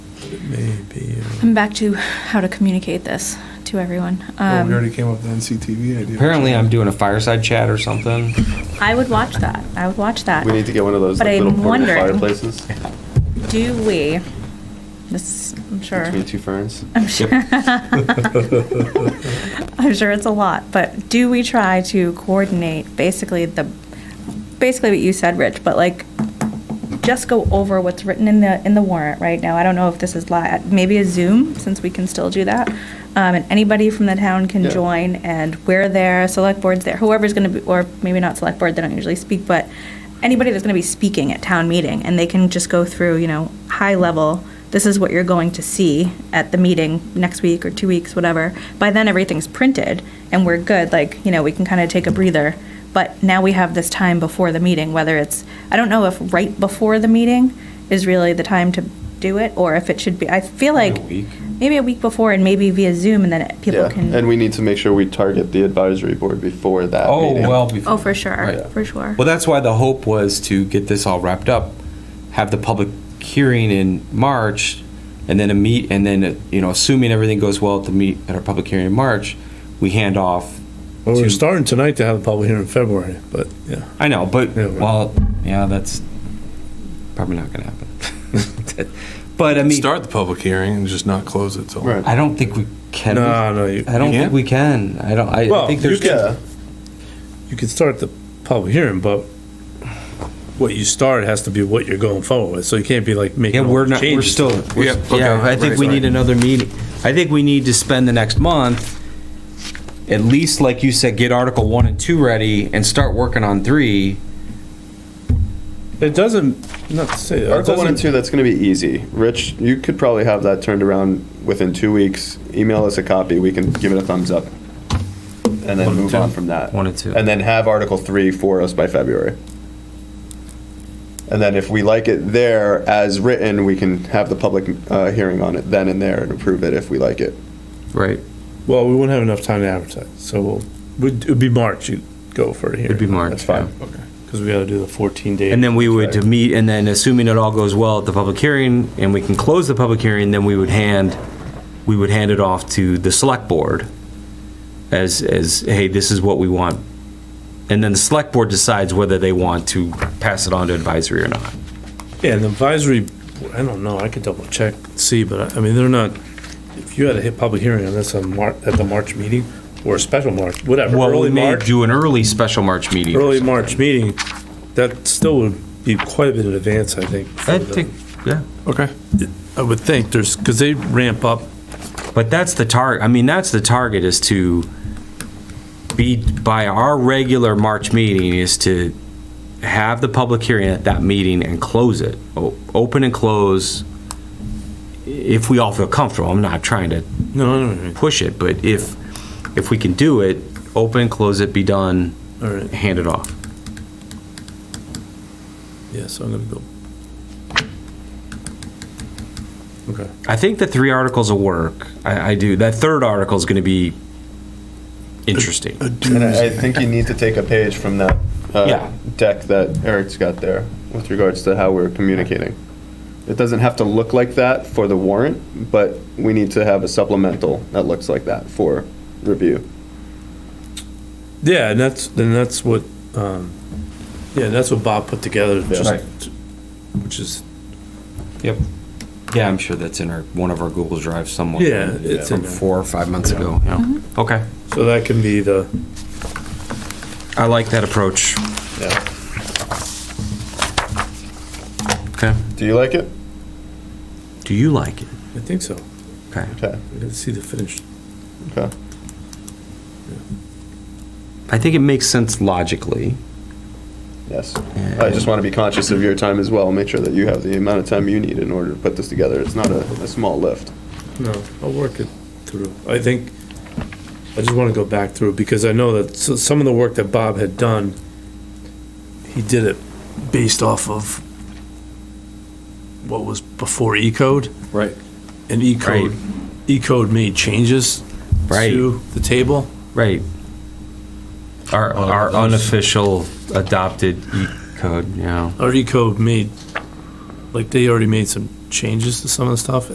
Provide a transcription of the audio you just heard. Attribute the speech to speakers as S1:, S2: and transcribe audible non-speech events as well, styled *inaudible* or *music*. S1: Maybe. uh,
S2: I'm back to how to communicate this to everyone.
S1: Well, Oh, we
S2: Um,
S1: already came up with the NCTV idea.
S3: Apparently, I'm doing a fireside chat or something.
S2: I would watch that. I would watch that.
S4: We need to get one of those
S2: But
S4: like,
S2: I'm
S4: little portable
S2: wondering-
S4: fireplaces
S2: Do we? This, is- I'm *laughs* sure.
S4: between two ferns.
S2: I'm sure. *laughs* I'm sure it's a lot, but do we try to coordinate basically the, basically what you said, Rich, but like, just go over what's written in the, in the warrant right now. I don't know if this is live, maybe a Zoom, since we can still do that. Um, and anybody from the town can
S4: Yeah.
S2: join and we're there, select board's there, whoever's gonna be, or maybe not select board, they don't usually speak, but anybody that's gonna be speaking at town meeting and they can just go through, you know, high level, this is what you're going to see at the meeting next week or two weeks, whatever. By then, everything's printed and we're good. Like, you know, we can kind of take a breather. But now we have this time before the meeting, whether it's, I don't know if right before the meeting is really the time to do it or if it should be, I feel like
S3: a week.
S2: maybe a week before and maybe via Zoom and then people
S4: Yeah,
S2: can.
S4: and we need to make sure we target the advisory board before that
S3: Oh,
S4: meeting.
S3: well. before-
S2: Oh, for sure,
S3: Right.
S2: for sure.
S3: Well, that's why the hope was to get this all wrapped up, have the public hearing in March, and then a meet, and then, uh, you know, assuming everything goes well at the meet, at our public hearing in March, we hand off.
S5: Well, we're
S3: to-
S5: starting tonight to have a public hearing in February, but yeah.
S3: I know, but,
S5: Yeah, we-
S3: well, yeah, that's probably not gonna happen. *laughs* But I mean,
S1: Start the public hearing and just not close it till.
S4: Right.
S3: I don't think we can.
S5: No, no, you,
S3: I don't
S1: You
S3: think
S1: can't?
S3: we can. I don't, I- I
S5: Well,
S3: think
S5: you
S3: there's.
S4: Yeah,
S5: you can start the public hearing, but what you start has to be what you're going forward with, so you can't be like making
S3: Yeah,
S5: all
S3: we're
S5: the
S3: not, we're
S5: changes
S3: still,
S5: to it.
S3: we're-
S1: Yep, okay,
S3: yeah, I think
S1: right,
S3: we
S1: sorry.
S3: need another meeting. I think we need to spend the next month, at least, like you said, get Article One and Two ready and start working on three.
S5: It doesn't, not to say, it
S4: Article one and
S5: doesn't,
S4: two, that's gonna be easy. Rich, you could probably have that turned around within two weeks. Email us a copy, we can give it a thumbs up. And then move on from that.
S3: One and two.
S4: And then have Article three for us by February. And then if we like it there as written, we can have the public, uh, hearing on it then and there and approve it if we like it.
S3: Right.
S5: well, we wouldn't have enough time to advertise, so we'll, would- it'd be March you'd go for a hearing.
S3: It'd be March,
S5: That's fine. Okay. Because we gotta do the fourteen day.
S3: And then we would meet, and then assuming it all goes well at the public hearing, and we can close the public hearing, then we would hand, we would hand it off to the select board as, as, hey, this is what we want. And then the select board decides whether they want to pass it on to advisory or not.
S5: Yeah, and the advisory, I don't know, I could double check, see, but I, I mean, they're not, if you had a hit public hearing on this on Mar, at the March meeting, or a special March, whatever,
S3: Well, we
S5: early
S3: may
S5: March,
S3: do an early special March meeting. or
S5: early
S3: something.
S5: March meeting, that still would be quite a bit in advance, I think. for
S3: I
S5: the-
S3: think, yeah.
S1: Okay.
S5: I would think, there's, because they ramp up,
S3: But that's the target, I mean, that's the target is to be, by our regular March meeting is to have the public hearing at that meeting and close it. O- Open and close, if we all feel comfortable. I'm not trying to
S5: no, no, no,
S3: push it, but if, if we can do it, open, close it, be done,
S5: all right,
S3: hand it off.
S5: yeah, so I'm gonna go. Okay,
S3: I think the three articles will work. I, I do. That third article is going to be interesting.
S4: And I I think you need to take a page from that uh,
S3: Yeah.
S4: deck that Eric's got there with regards to how we're communicating. It doesn't have to look like that for the warrant, but we need to have a supplemental that looks like that for review.
S5: yeah, and that's, then that's what, um, yeah, that's what Bob put together,
S3: Right.
S5: just, which is
S3: Yep. Yeah, I'm sure that's in our, one of our Google Drives somewhere.
S5: Yeah, it's
S3: From
S5: in there.
S3: four or five months ago. Yeah. Okay.
S5: So that can be the,
S3: I like that approach. Okay.
S4: Do you like it?
S3: Do you like it?
S5: I think so.
S3: Okay.
S4: Okay,
S5: We gotta see the finished.
S4: okay.
S3: I think it makes sense logically.
S4: Yes. I just want to be conscious of your time as well. Make sure that you have the amount of time you need in order to put this together. It's not a, a small lift.
S5: No, I'll work it through. I think, I just wanna go back through, because I know that s- some of the work that Bob had done, he did it based off of what was before E code,
S3: Right.
S5: and E code,
S3: Right.
S5: E code made changes
S3: Right.
S5: to the table.
S3: Right. Our, our unofficial adopted E code, yeah.
S5: Our E code made, like, they already made some changes to some of the stuff,